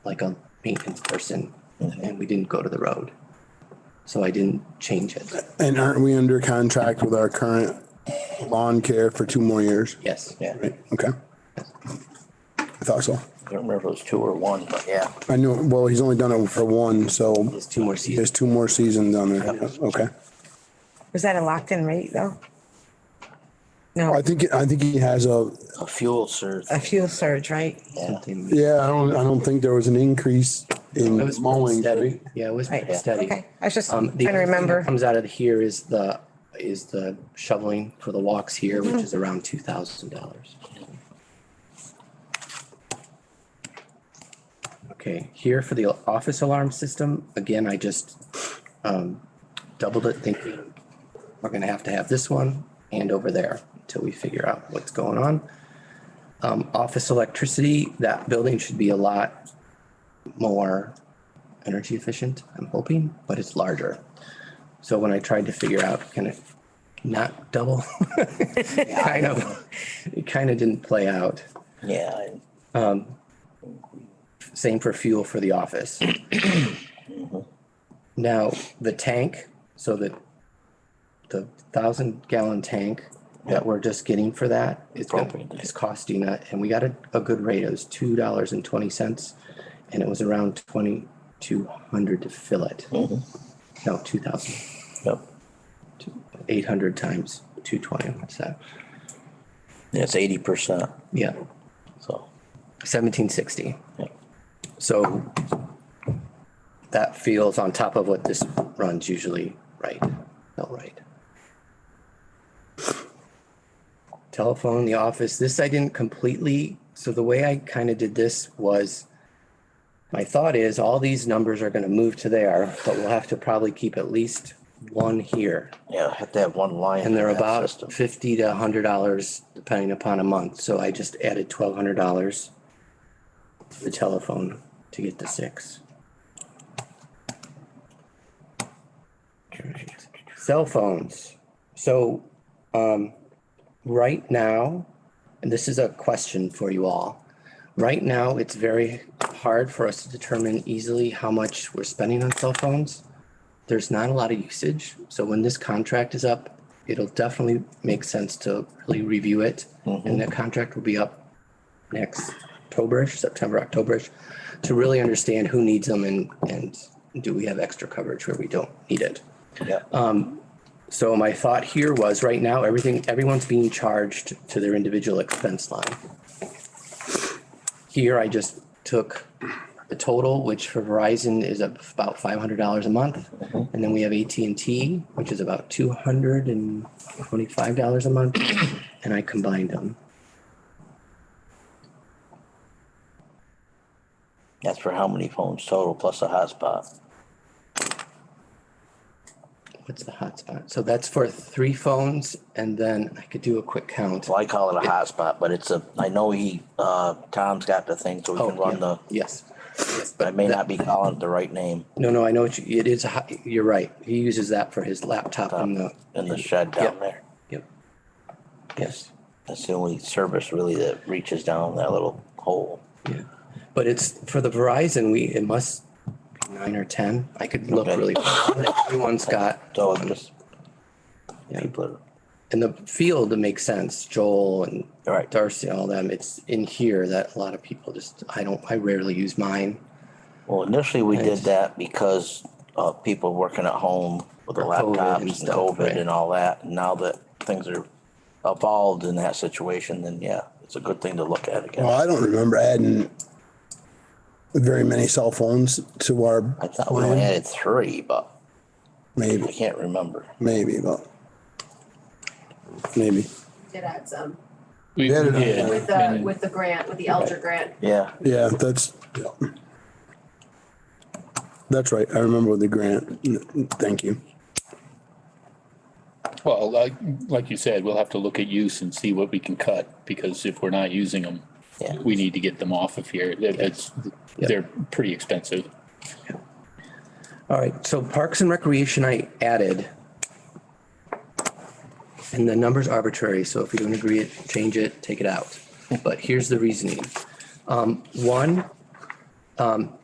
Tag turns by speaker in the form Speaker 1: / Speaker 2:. Speaker 1: like a maintenance person
Speaker 2: Mm-hmm.
Speaker 1: and we didn't go to the road. So I didn't change it.
Speaker 3: And aren't we under contract with our current lawn care for two more years?
Speaker 1: Yes.
Speaker 4: Yeah, I
Speaker 3: Right, okay. I thought so.
Speaker 4: don't remember if it was two or one, but yeah.
Speaker 3: I knew, well, he's only done it for one, so
Speaker 1: There's two more
Speaker 3: there's
Speaker 1: seasons.
Speaker 3: two more seasons on there. Okay.
Speaker 2: Was that a locked in rate though?
Speaker 3: I
Speaker 2: No,
Speaker 3: think, I think he has a,
Speaker 4: A fuel surge.
Speaker 2: a fuel surge, right?
Speaker 4: Yeah.
Speaker 1: Something-
Speaker 3: yeah, I don't, I don't think there was an increase in
Speaker 1: It was
Speaker 3: mowing.
Speaker 1: steady. Yeah, it was
Speaker 2: Right,
Speaker 1: pretty steady.
Speaker 2: okay. I was just
Speaker 1: Um, the
Speaker 2: trying to
Speaker 1: other thing that
Speaker 2: remember.
Speaker 1: Comes out of here is the, is the shoveling for the walks here,
Speaker 2: Mm-hmm.
Speaker 1: which is around two thousand dollars. Okay, here for the office alarm system, again, I just um doubled it thinking we're gonna have to have this one and over there until we figure out what's going on. Um, office electricity, that building should be a lot more energy efficient, I'm hoping, but it's larger. So when I tried to figure out, can it not double? Kind of, it kind of didn't play out.
Speaker 4: Yeah, I-
Speaker 1: Same for fuel for the office. Now, the tank, so that the thousand gallon tank that we're just getting for that is gonna-
Speaker 4: Propane.
Speaker 1: is costing, uh, and we got a, a good rate. It was two dollars and twenty cents. And it was around twenty-two hundred to fill it. No, two thousand.
Speaker 4: yep.
Speaker 1: eight hundred times two twenty, what's that?
Speaker 4: That's eighty percent,
Speaker 1: Yeah,
Speaker 4: so.
Speaker 1: seventeen sixty.
Speaker 4: yeah.
Speaker 1: So that feels on top of what this runs usually, right? Not right. Telephone, the office, this I didn't completely, so the way I kind of did this was my thought is all these numbers are gonna move to there, but we'll have to probably keep at least one here
Speaker 4: Yeah, have to have one line.
Speaker 1: And they're
Speaker 4: in that
Speaker 1: about
Speaker 4: system.
Speaker 1: fifty to hundred dollars depending upon a month, so I just added twelve hundred dollars to the telephone to get the six. Cell phones, so, um, right now, and this is a question for you all. Right now, it's very hard for us to determine easily how much we're spending on cell phones there's not a lot of usage. So when this contract is up, it'll definitely make sense to really review it. And that contract will be up next Octoberish, September, Octoberish, to really understand who needs them and, and do we have extra coverage where we don't need it.
Speaker 4: Yeah,
Speaker 1: So my thought here was right now, everything, everyone's being charged to their individual expense line. Here, I just took the total, which for Verizon is up about five hundred dollars a month.
Speaker 4: Mm-hmm.
Speaker 1: And then we have AT&T, which is about two hundred and twenty-five dollars a month, and I combined them.
Speaker 4: that's for how many phones total plus a hotspot.
Speaker 1: What's the hotspot? So that's for three phones, and then I could do a quick count.
Speaker 4: Well, I call it a hotspot, but it's a, I know he, uh, Tom's got the thing, so we
Speaker 1: Oh,
Speaker 4: can run
Speaker 1: yeah.
Speaker 4: the,
Speaker 1: Yes.
Speaker 4: but I may not be calling it the right name
Speaker 1: No, no, I know what you, it is, a hot- you're right. He uses that for his laptop and the.
Speaker 4: Ah, in the shed
Speaker 1: Yep.
Speaker 4: down there.
Speaker 1: Yep.
Speaker 4: Yes. That's the only service really that reaches down that little hole.
Speaker 1: Yeah, but it's for the Verizon, we, it must be nine or ten. I could look
Speaker 4: Okay.
Speaker 1: really. Everyone's got,
Speaker 4: So I'm just,
Speaker 1: Yeah.
Speaker 4: people are
Speaker 1: in the field, it makes sense. Joel and
Speaker 4: Right.
Speaker 1: Darcy, all them, it's in here that a lot of people just, I don't, I rarely use mine.
Speaker 4: Well, initially we did that because uh, people working at home with the
Speaker 1: For COVID
Speaker 4: laptops
Speaker 1: and
Speaker 4: and
Speaker 1: stuff,
Speaker 4: COVID
Speaker 1: right.
Speaker 4: and all that. And Now that things are evolved in that situation, then yeah, it's a good thing to look at
Speaker 3: Well,
Speaker 4: again.
Speaker 3: I don't remember adding very many cell phones to our
Speaker 4: I thought we only
Speaker 3: plan.
Speaker 4: added three, but I
Speaker 3: Maybe,
Speaker 4: can't remember.
Speaker 3: maybe, but maybe.
Speaker 5: did add some
Speaker 6: We
Speaker 3: Yeah,
Speaker 6: we
Speaker 3: no,
Speaker 6: did.
Speaker 5: with
Speaker 6: and
Speaker 5: the,
Speaker 6: it-
Speaker 5: with the grant, with the Elger grant.
Speaker 4: Yeah,
Speaker 3: Yeah, that's, yeah. that's right. I remember the grant. Thank you.
Speaker 6: Well, like, like you said, we'll have to look at use and see what we can cut, because if we're not using them,
Speaker 4: Yeah.
Speaker 6: we need to get them off of here. That- That's, they're pretty expensive.
Speaker 1: All right, so Parks and Recreation I added. And the number's arbitrary, so if you don't agree, it change it, take it out. But here's the reasoning. Um, one, um,